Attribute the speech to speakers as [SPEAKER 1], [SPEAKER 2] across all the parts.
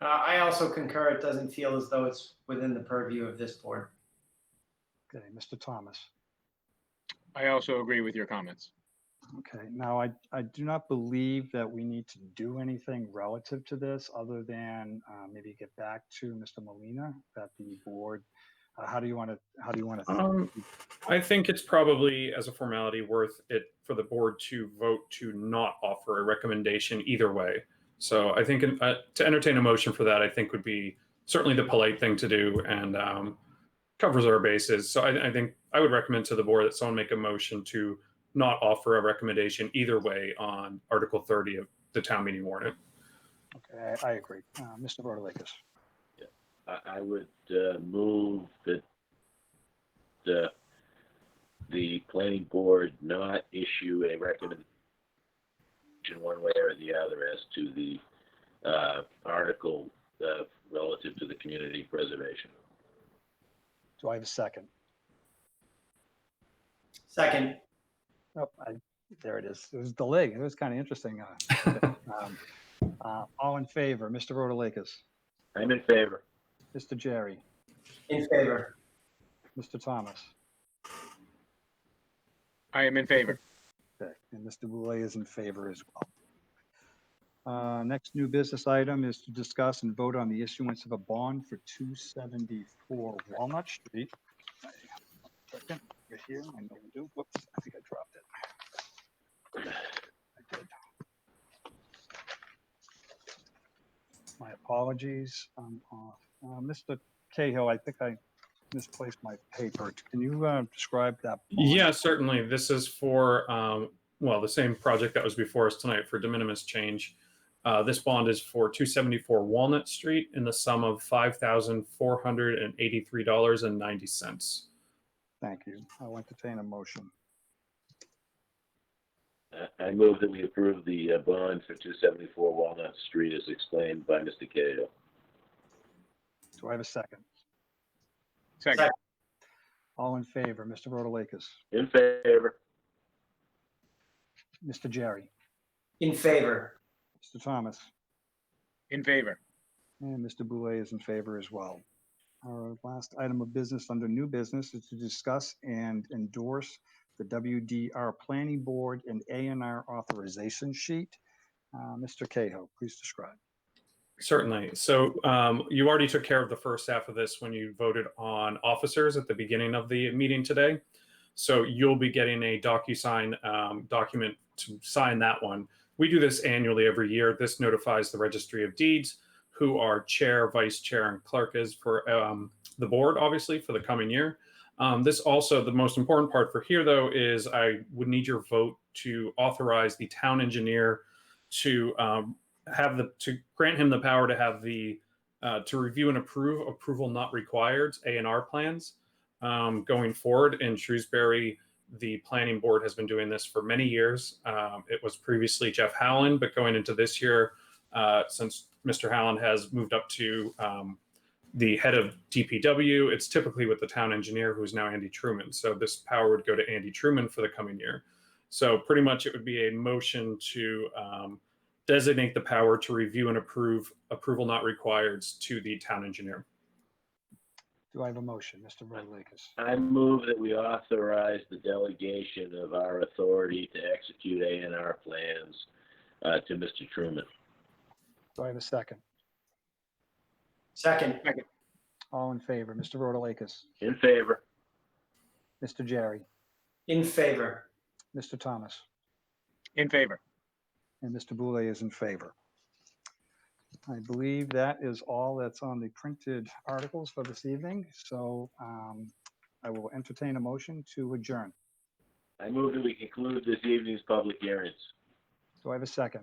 [SPEAKER 1] Uh, I also concur. It doesn't feel as though it's within the purview of this board.
[SPEAKER 2] Okay, Mr. Thomas.
[SPEAKER 3] I also agree with your comments.
[SPEAKER 2] Okay, now I, I do not believe that we need to do anything relative to this other than uh, maybe get back to Mr. Molina that the board, uh, how do you want to, how do you want to?
[SPEAKER 4] Um, I think it's probably, as a formality, worth it for the board to vote to not offer a recommendation either way. So I think uh, to entertain a motion for that, I think would be certainly the polite thing to do and um, covers our bases. So I, I think I would recommend to the board that someone make a motion to not offer a recommendation either way on Article 30 of the town meeting warrant.
[SPEAKER 2] Okay, I I agree. Uh, Mr. Rotalakis.
[SPEAKER 5] I, I would uh, move that the, the planning board not issue a recommendation one way or the other as to the uh, article uh, relative to the community preservation.
[SPEAKER 2] Do I have a second?
[SPEAKER 1] Second,
[SPEAKER 2] Oh, I, there it is. It was delayed. It was kind of interesting. uh, um, uh, All in favor, Mr. Rotalakis,
[SPEAKER 5] I'm in favor.
[SPEAKER 2] Mr. Jerry,
[SPEAKER 1] in favor.
[SPEAKER 2] Mr. Thomas,
[SPEAKER 3] I am in favor.
[SPEAKER 2] okay, and Mr. Boulay is in favor as well. Uh, Next new business item is to discuss and vote on the issuance of a bond for 274 Walnut Street. Second, You're here, I know you do. Whoops, I think I dropped it. I did. My apologies. I'm off. Uh, Mr. Cahill, I think I misplaced my paper. Can you uh, describe that? bond?
[SPEAKER 4] Yeah, certainly. This is for, um, well, the same project that was before us tonight for de minimis change. Uh, this bond is for 274 Walnut Street in the sum of $5,483.90.
[SPEAKER 2] Thank you. I'll entertain a motion.
[SPEAKER 5] I- I move that we approve the uh, bond for 274 Walnut Street as explained by Mr. Cahill.
[SPEAKER 2] Do I have a second?
[SPEAKER 3] Second,
[SPEAKER 2] All in favor, Mr. Rotalakis,
[SPEAKER 5] In favor.
[SPEAKER 2] Mr. Jerry,
[SPEAKER 1] In favor.
[SPEAKER 2] Mr. Thomas,
[SPEAKER 3] in favor.
[SPEAKER 2] and Mr. Boulay is in favor as well. Our last item of business under new business is to discuss and endorse the WDR Planning Board and A and R authorization sheet. Uh, Mr. Cahill, please describe.
[SPEAKER 4] Certainly. So um, you already took care of the first half of this when you voted on officers at the beginning of the meeting today. So you'll be getting a DocuSign um, document to sign that one. We do this annually every year. This notifies the Registry of Deeds, who are chair, vice chair, and clerk is for um, the board, obviously, for the coming year. Um, this also, the most important part for here, though, is I would need your vote to authorize the town engineer to um, have the to grant him the power to have the uh, to review and approve approval not required A and R plans um, going forward in Shrewsbury. The planning board has been doing this for many years. Um, it was previously Jeff Howland, but going into this year, uh, since Mr. Howland has moved up to um, the head of DPW, it's typically with the town engineer, who's now Andy Truman. So this power would go to Andy Truman for the coming year. So pretty much, it would be a motion to um, designate the power to review and approve approval not required to the town engineer.
[SPEAKER 2] Do I have a motion, Mr. Rotalakis?
[SPEAKER 5] I move that we authorize the delegation of our authority to execute A and R plans uh, to Mr. Truman.
[SPEAKER 2] Do I have a second?
[SPEAKER 1] Second,
[SPEAKER 2] All in favor, Mr. Rotalakis,
[SPEAKER 5] In favor.
[SPEAKER 2] Mr. Jerry,
[SPEAKER 1] in favor.
[SPEAKER 2] Mr. Thomas?
[SPEAKER 3] In favor.
[SPEAKER 2] And Mr. Boulay is in favor. I believe that is all that's on the printed articles for this evening, so um, I will entertain a motion to adjourn.
[SPEAKER 5] I move that we conclude this evening's public hearings.
[SPEAKER 2] Do I have a second?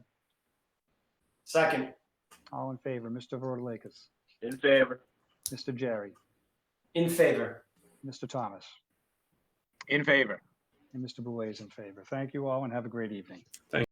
[SPEAKER 1] Second,
[SPEAKER 2] All in favor, Mr. Rotalakis,
[SPEAKER 5] In favor.
[SPEAKER 2] Mr. Jerry,
[SPEAKER 1] in favor.
[SPEAKER 2] Mr. Thomas,
[SPEAKER 3] In favor.
[SPEAKER 2] and Mr. Boulay is in favor. Thank you all and have a great evening.